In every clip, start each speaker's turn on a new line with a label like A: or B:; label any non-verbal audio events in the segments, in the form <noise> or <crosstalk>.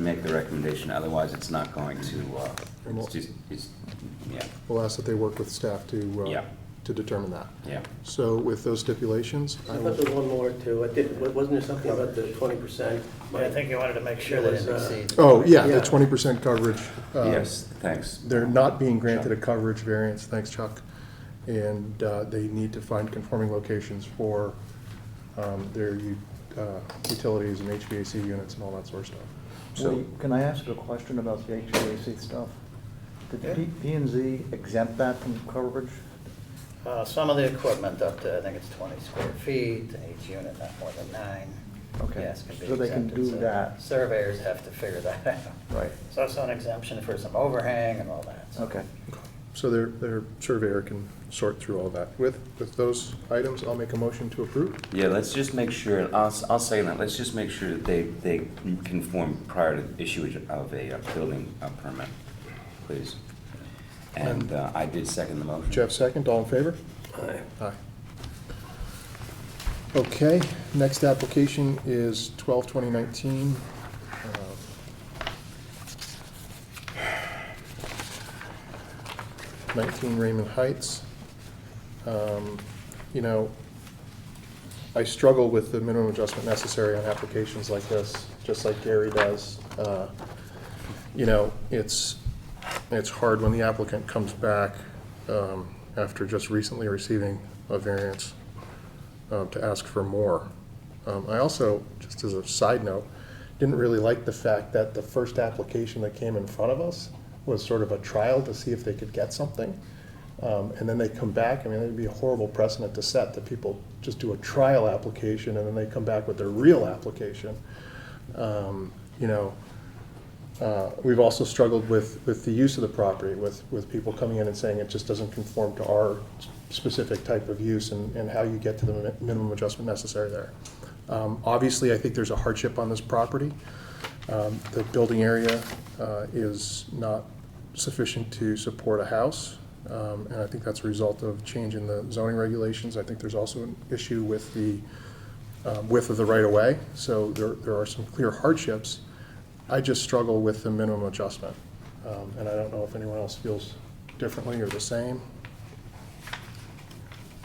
A: make the recommendation, otherwise it's not going to, uh,
B: Well-
A: it's just, it's, yeah,
B: We'll ask that they work with staff to, uh,
A: Yeah.
B: to determine that.
A: yeah.
B: So with those stipulations, I
C: I thought
B: will,
C: there was one more too. I did, wa- wasn't there something about the twenty percent?
D: But I think you wanted to make sure uh, that it exceeds.
B: oh, yeah, the
C: Yeah.
B: twenty percent coverage. uh,
A: Yes, thanks.
B: They're not being granted a coverage variance, thanks Chuck. And uh, they need to find conforming locations for um, their u- uh, utilities and HVAC units and all that sort of stuff.
E: Well, can I ask a question about the HVAC stuff? Did P- P and Z exempt that from coverage?
D: Uh, Some of the equipment up to, I think it's 20 square feet, and each unit not more than nine.
E: Okay,
D: Yes, can be
E: so they can
D: exempted,
E: do
D: so
E: that.
D: Surveyors have to figure that out.
E: Right.
D: So that's an exemption for some overhang and all that. so.
E: Okay.
B: So their, their surveyor can sort through all that. With, with those items, I'll make a motion to approve.
A: Yeah, let's just make sure, I'll, s- I'll say that, let's just make sure that they, they conform prior to the issue of a uh, building uh, permit, please. And uh, I did second the motion.
B: Jeff second, all in favor? Aye. Okay, next application is twelve twenty nineteen. Nineteen Raymond Heights. Um, You know, I struggle with the minimum adjustment necessary on applications like this, just like Gary does. Uh, You know, it's, it's hard when the applicant comes back um, after just recently receiving a variance uh, to ask for more. Um, I also, just as a side note, didn't really like the fact that the first application that came in front of us was sort of a trial to see if they could get something. Um, And then they come back, I mean, it'd be a horrible precedent to set, that people just do a trial application and then they come back with their real application. Um, You know, uh, We've also struggled with, with the use of the property, with, with people coming in and saying it just doesn't conform to our specific type of use and, and how you get to the mi- minimum adjustment necessary there. Um, Obviously, I think there's a hardship on this property. Um, The building area uh, is not sufficient to support a house, um, and I think that's a result of change in the zoning regulations. I think there's also an issue with the uh, width of the right-of-way, so there, there are some clear hardships. I just struggle with the minimum adjustment, um, and I don't know if anyone else feels differently or the same.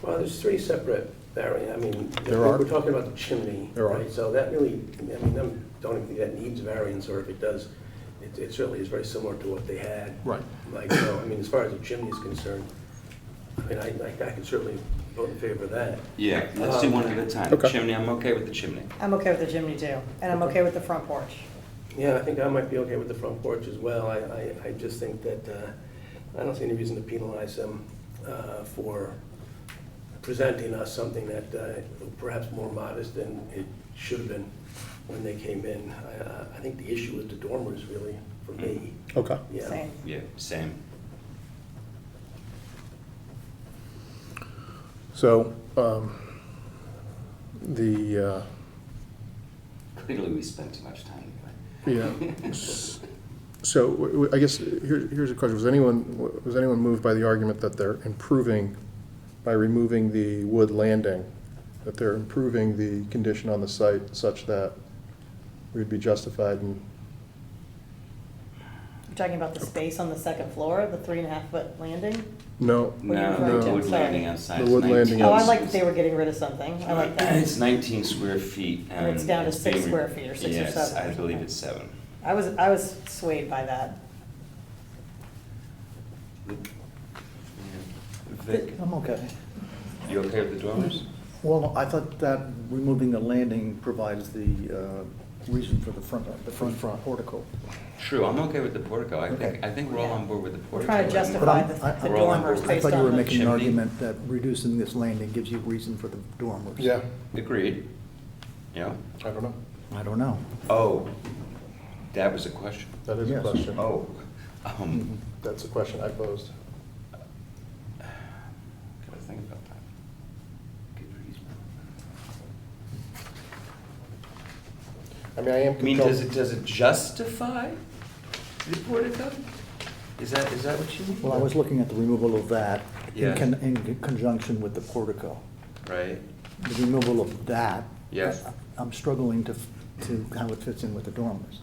C: Well, there's three separate vari, I mean,
B: There
C: we
B: are.
C: we're talking about the chimney.
B: There are.
C: right? So that really, I mean, I'm- don't even think that needs variance, or if it does, it, it certainly is very similar to what they had.
B: Right.
C: Like, so, I mean, as far as the chimney is concerned, I mean, I, I I can certainly vote in favor of that.
A: Yeah, let's do one at a time.
B: Okay.
A: Chimney, I'm okay with the chimney.
F: I'm okay with the chimney too, and I'm okay with the front porch.
C: Yeah, I think I might be okay with the front porch as well. I, I, I just think that, uh, I don't see any reason to penalize them, uh, for presenting us something that, uh, perhaps more modest than it should have been when they came in. I, uh, I- I think the issue with the dormers really, for me,
B: Okay.
C: yeah.
F: Same.
A: Yeah, same.
B: So, um, the, uh,
A: Clearly, we spent too much time together.
B: yeah, S- so w- w- I guess, here, here's a question, was anyone, was anyone moved by the argument that they're improving, by removing the wood landing, that they're improving the condition on the site such that we'd be justified in
F: You're talking about the space on the second floor, the three and a half foot landing?
B: no,
F: What are you
A: <laughs>
F: referring
A: No, the
F: to?
A: wood
F: Sorry.
A: landing outside.
B: The
A: is
B: wood landing
A: 19.
F: Oh, I like that they were getting rid of something, I like that.
A: It's 19 square feet and.
F: And it's down to six
A: being re-
F: square feet or six or
A: Yes,
F: seven or
A: I believe
F: something.
A: it's seven.
F: I was, I was swayed by that.
A: Vic,
E: I'm okay.
A: you okay with the dormers?
E: Well, I thought that removing the landing provides the uh, reason for the front, the front portico.
A: True, I'm okay with the portico. I think,
E: Okay.
A: I think we're all on board with the portico.
F: We're trying to
E: But
F: justify
E: I'm-
F: the
E: I-
F: the
A: We're all on
F: dormers
A: board.
E: I
F: based
E: thought you were
F: on
E: making
F: the.
E: an
A: Chimney.
E: argument that reducing this landing gives you reason for the dormers.
B: yeah,
A: Agreed. Yeah.
B: I don't know.
E: I don't know.
A: Oh, that was a question.
B: That is a
E: Yes.
B: question.
A: Oh, um,
B: That's a question I posed.
A: gotta think about that. Good reason.
B: I mean, I am
A: I mean, does it,
B: compelled,
A: does it justify the portico? Is that, is that what you mean?
E: Well, I was looking at the removal of that in
A: Yeah.
E: con- in conjunction with the portico.
A: Right,
E: The removal of that.
A: Yes.
E: I- I'm struggling to, f- to how it fits in with the dormers.